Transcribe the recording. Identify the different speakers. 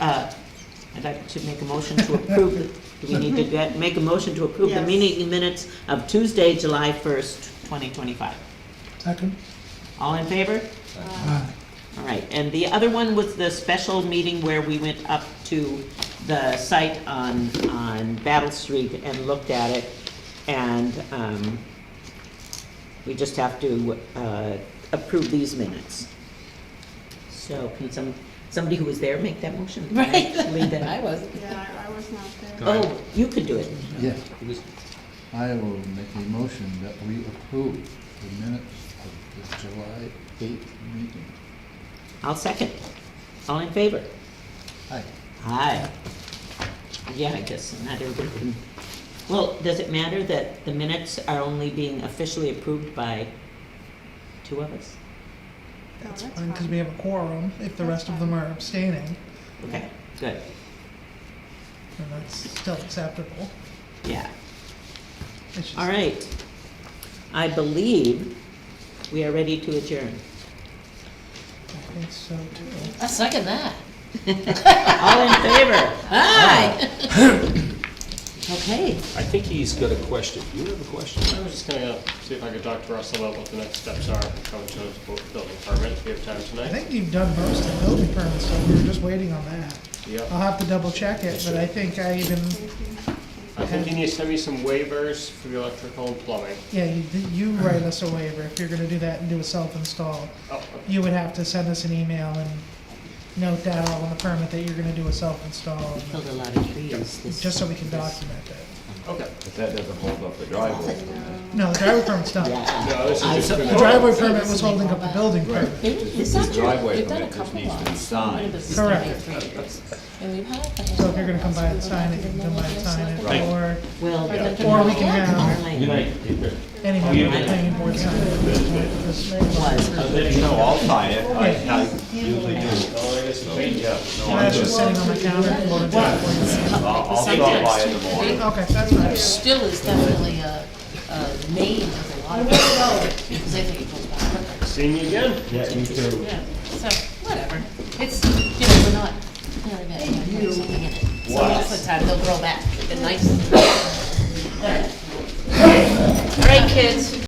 Speaker 1: uh, I'd like to make a motion to approve, the- do we need to get, make a motion to approve the
Speaker 2: Yes.
Speaker 1: meeting minutes of Tuesday, July first, twenty twenty-five?
Speaker 3: Second?
Speaker 1: All in favor?
Speaker 3: Aye.
Speaker 1: All right, and the other one was the special meeting where we went up to the site on, on Battle Street and looked at it. And, um, we just have to, uh, approve these minutes. So can some, somebody who was there make that motion?
Speaker 4: Right.
Speaker 1: Lead that.
Speaker 4: I wasn't.
Speaker 2: Yeah, I- I was not there.
Speaker 5: Go ahead.
Speaker 1: Oh, you could do it.
Speaker 3: Yes,
Speaker 5: Who's-
Speaker 3: I will make a motion that we approve the minutes of the July eighth meeting.
Speaker 1: I'll second. All in favor?
Speaker 3: Aye.
Speaker 1: Aye. Yeah, I guess not everybody can. Well, does it matter that the minutes are only being officially approved by two of us?
Speaker 2: No, that's
Speaker 6: Because
Speaker 2: fine.
Speaker 6: we have a quorum, if the rest of them are abstaining,
Speaker 1: Okay, good,
Speaker 6: then that's still acceptable.
Speaker 1: yeah.
Speaker 6: It's just-
Speaker 1: All right. I believe we are ready to adjourn.
Speaker 6: I think so too.
Speaker 4: I second that.
Speaker 1: All in favor?
Speaker 4: Aye.
Speaker 1: Okay.
Speaker 5: I think he's got a question. You have a question?
Speaker 7: I was just gonna see if I could talk to Russell about what the next steps are coming to his bu- building permit, if we have time
Speaker 6: I
Speaker 7: tonight.
Speaker 6: think you've done most of the building permit stuff, we were just waiting on that. I'll
Speaker 7: Yep.
Speaker 6: have to double check it, but I think I even,
Speaker 7: I think you need to send me some waivers for the electrical and plumbing.
Speaker 6: yeah, you, you write us a waiver if you're gonna do that and do a self-install.
Speaker 7: Oh,
Speaker 6: You would have to send us an email and note down on the permit that you're gonna do a self-install,
Speaker 1: Killed a lot of trees this.
Speaker 6: just so we can document it.
Speaker 7: okay.
Speaker 8: But that doesn't hold up the driveway.
Speaker 6: No, the driveway permit's done.
Speaker 1: Yeah.
Speaker 7: No, this
Speaker 1: I
Speaker 7: is just
Speaker 1: sup-
Speaker 6: The
Speaker 7: gonna,
Speaker 6: driveway permit was holding up the building permit.
Speaker 4: It's
Speaker 8: The
Speaker 4: not true.
Speaker 8: driveway
Speaker 4: They've done a
Speaker 8: permit just
Speaker 4: couple
Speaker 8: needs to be
Speaker 4: lots.
Speaker 8: signed.
Speaker 4: One of us is
Speaker 6: Correct.
Speaker 4: doing it for years. And we've had a
Speaker 6: So if you're gonna come by and sign it, you can come by and sign it, or
Speaker 1: Well.
Speaker 6: Or we can have-
Speaker 1: Marlene
Speaker 6: any member of the planning board sign it.
Speaker 1: Was,
Speaker 8: No, I'll sign it, I, I usually do. Yeah, no,
Speaker 6: And
Speaker 8: I'm
Speaker 6: that's just
Speaker 8: just,
Speaker 6: sitting on my calendar. Okay,
Speaker 8: I'll, I'll stop by in the morning.
Speaker 6: that's fine.
Speaker 4: Still is definitely a, a name of a lot of people, because I think it goes back quicker.
Speaker 7: seeing you again.
Speaker 4: Yeah, so, whatever. It's, you know, we're not, you know, we're not putting something in it. So
Speaker 8: What?
Speaker 4: most of the time, they'll grow back, and nice,